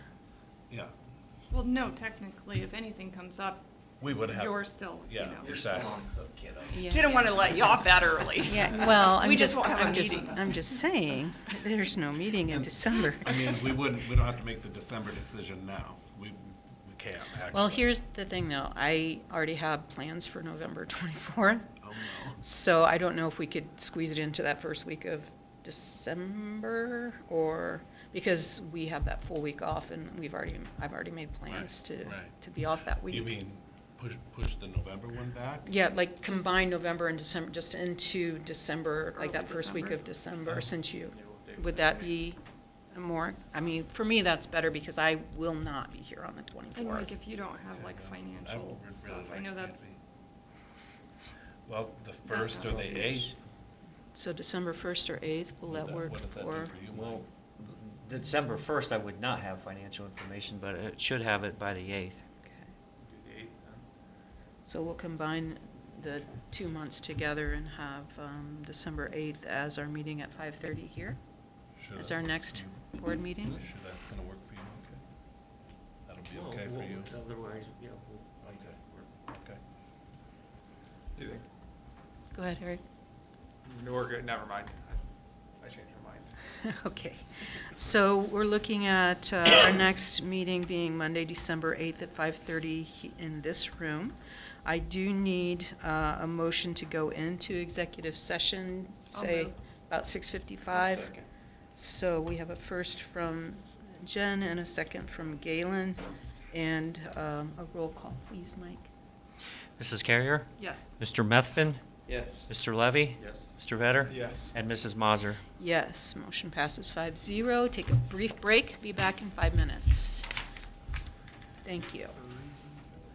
Yeah, Well, no, technically, if anything comes up, we would have. you're still, you Yeah, know. you're still on the hook, kiddo. Didn't want to let you off that early. Yeah, well, We I'm just just, won't have a I'm just, uh, meeting. I'm just saying, there's no meeting in December. I mean, we wouldn't, we don't have to make the December decision now. We, we can't, actually. Well, here's the thing though, I already have plans for November twenty-fourth, Oh, no. so I don't know if we could squeeze it into that first week of December or, because we have that full week off and we've already, I've already made plans Right, to, right. to be off that week. You mean, push, push the November one back? Yeah, like combine November and December, just into December, like that Early first week of Yeah. December, since you, would that be more, I mean, for me, that's better because I will not be here on And the like, twenty-fourth. if you don't have like Yeah, no, I financial would really stuff, I like know to that's, be- Well, the first or not the rubbish. eighth. So December first or eighth, will would that work what does that do for? you, Mike? Well, the December first, I would not have financial information, but it should have it by the eighth. Okay. So we'll combine the two months together and have, um, December eighth as our meeting at five-thirty here, Should as that our work for next you? board meeting. Should that, gonna work for you, okay? That'll be okay for you? Otherwise, yeah. Okay. Okay. Do you think? Go ahead, Eric. No, we're good, never mind. I- I changed my mind. Okay, so we're looking at uh, our next meeting being Monday, December 8th at 5:30 he- in this room. I do need uh, a motion to go into executive session, I'll say move. about 6:55. So we have a first from Jen and a second from Galen, and um, a roll call, please, Mike. Mrs. Carrier? yes. Mr. Methvin? Yes. Mr. Levy? Yes. Mr. Vetter? Yes. And Mrs. Mazur? Yes, motion passes 5-0. Take a brief break, be back in five minutes. Thank you.